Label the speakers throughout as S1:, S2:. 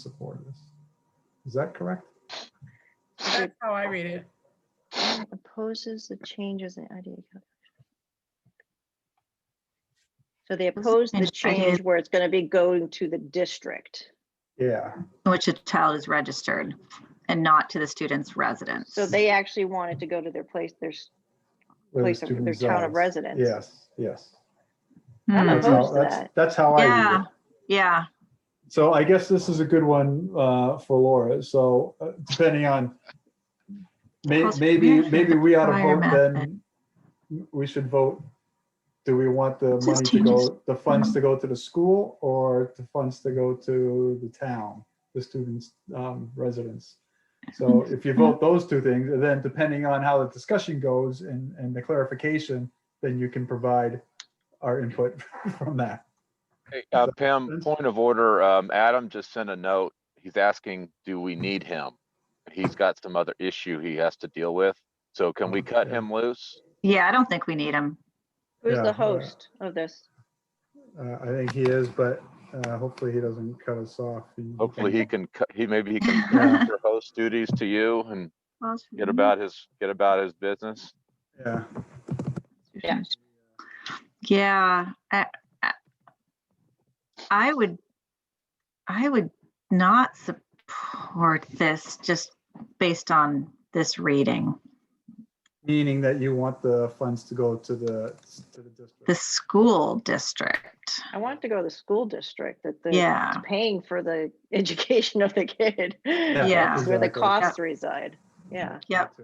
S1: support of this. Is that correct?
S2: That's how I read it.
S3: and opposes the changes in IDA. calculation.
S4: So they oppose the
S5: change
S4: change
S5: registered.
S4: where it's going to be going to the district.
S1: Yeah,
S5: in which a child is registered and not to the student's residence.
S4: So they actually want it to go to their place, their s-
S1: where the
S4: place of
S1: student
S4: their town of
S1: resides.
S4: residence.
S1: Yes, yes.
S4: I'm
S5: Hmm,
S1: That's how-
S4: opposed to
S1: that's-
S4: that.
S1: That's how I read
S5: Yeah.
S1: it.
S5: Yeah,
S1: So I guess this is a good one uh, for Laura. So uh, depending on, may-
S5: Cost
S1: maybe,
S5: protection
S1: maybe we ought to vote then.
S5: requirement.
S1: We should vote, do we want the
S5: This
S1: money to
S5: changes-
S1: go, the funds to go to the school or the funds to go to the town, the students' um, residence? So if you vote those two things, and then depending on how the discussion goes and, and the clarification, then you can provide our input from that.
S6: Hey, uh,
S1: that
S6: Pam,
S1: sense?
S6: point of order, um, Adam just sent a note. He's asking, do we need him? He's got some other issue he has to deal with. So can we cut
S1: Okay.
S6: him loose?
S5: yeah, I don't think we need them.
S4: Who's
S1: Yeah,
S4: the host of this?
S1: Uh, I think he is, but uh, hopefully he doesn't cut us off.
S6: Hopefully he can, cut- he, maybe he can
S1: Yeah. Mm-hmm.
S6: transfer host duties to you and get about his, get about his business.
S1: Yeah,
S4: Yeah.
S5: Yeah, I, I- I would, I would not support this just based on this reading.
S1: meaning that you want the funds to go to the, to the
S5: The
S1: district.
S5: school district,
S4: I want it to go to the school district that the,
S5: yeah.
S4: it's paying for the education of the kid.
S5: Yeah.
S4: That's Where the
S1: exactly.
S4: costs reside. Yeah.
S5: Yep.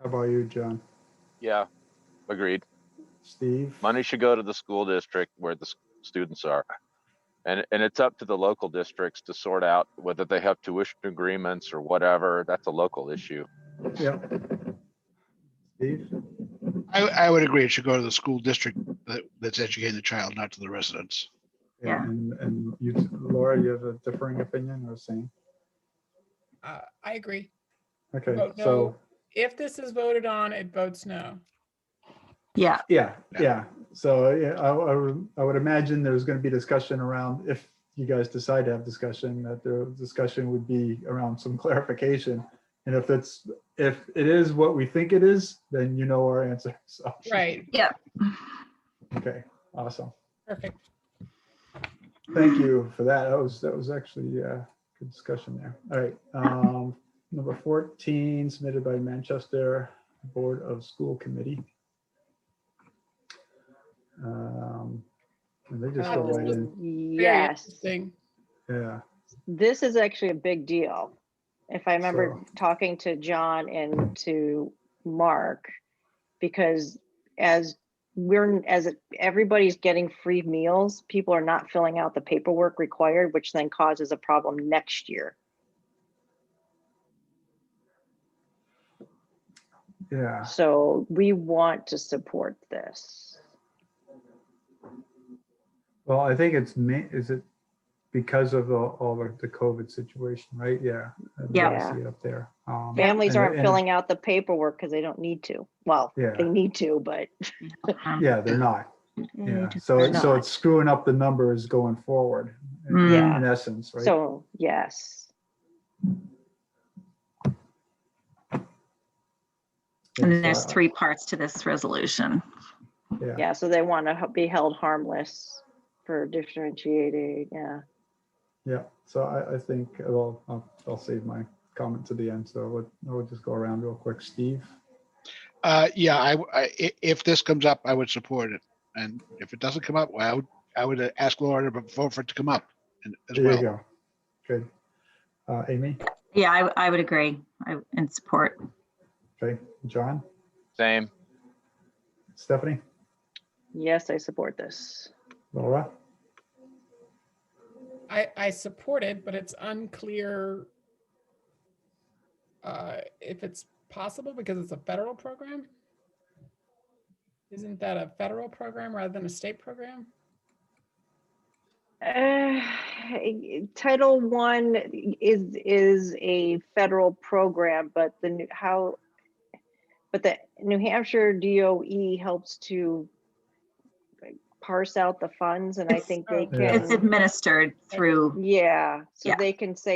S1: How about you, John?
S6: Yeah, agreed.
S1: Steve?
S6: Money should go to the school district where the s- students are. And, and it's up to the local districts to sort out whether they have tuition agreements or whatever. That's a local issue.
S1: Yeah. Steve?
S7: I, I would agree. It should go to the school district that, that's educating the child, not to the residents.
S5: Yeah.
S1: And, and you, Laura, you have a differing opinion or same?
S2: Uh, I agree.
S1: Okay,
S2: Vote no.
S1: so,
S2: If this is voted on, it votes no.
S5: Yeah,
S1: yeah, yeah. So yeah, I, I would- I would imagine there's going to be discussion around, if you guys decide to have discussion, that the discussion would be around some clarification. And if it's, if it is what we think it is, then you know our answer, so.
S2: Right,
S1: Okay, awesome.
S2: perfect.
S1: Thank you for that. That was, that was actually a good discussion there. All right. um, Number 14 submitted by Manchester Board of School Committee. Um, And they just
S2: Uh,
S1: go
S2: this
S1: right
S2: was-
S1: in.
S2: Very
S4: Yes.
S2: interesting.
S1: Yeah,
S4: this is actually a big deal. If I remember
S1: So-
S4: talking to John and to Mark, because as we're, as it- everybody's getting free meals, people are not filling out the paperwork required, which then causes a problem next year.
S1: yeah.
S4: So we want to support this.
S1: Well, I think it's ma, is it because of the, all of the COVID situation, right? Yeah. I'd
S5: Yeah.
S1: love to see it Up there. Um,
S4: Families
S1: and-
S4: aren't
S1: and-
S4: filling out the paperwork because they don't need to. Well,
S1: Yeah.
S4: they need to, but
S5: um,
S1: Yeah, they're not. Yeah, so,
S4: They're
S1: it- so
S4: not.
S1: it's screwing up the numbers going forward. in-
S5: Mm.
S4: Yeah.
S1: In essence, right?
S4: so, yes.
S1: Yeah,
S5: And
S1: so
S5: then there's
S1: I-
S5: three parts to this resolution.
S1: uh, Yeah.
S4: Yeah, so they want to be held harmless for differentiating, yeah.
S1: Yeah, so I, I think, well, I'll, I'll save my comment to the end, so I would, I would just go around real quick. Steve?
S7: Uh, yeah, I, w- I- i- if this comes up, I would support it. And if it doesn't come up, well, I would, I would ask Laura to vote for it to come up and as
S1: There you
S7: well.
S1: go. Good. Uh, Amy?
S5: Yeah, I, I would agree. I, and support.
S1: Okay, John?
S6: Same.
S1: Stephanie?
S4: Yes, I support this.
S1: Laura?
S2: I, I support it, but it's unclear uh, if it's possible because it's a federal program. Isn't that a federal program rather than a state program?
S4: Uh, Title One is, is a federal program, but the, new- how, E but the New Hampshire DOE helps to
S5: parse out the funds and I think they
S8: Yeah.
S5: can,
S4: It's administered through
S5: yeah, so
S4: Yeah.
S5: they can say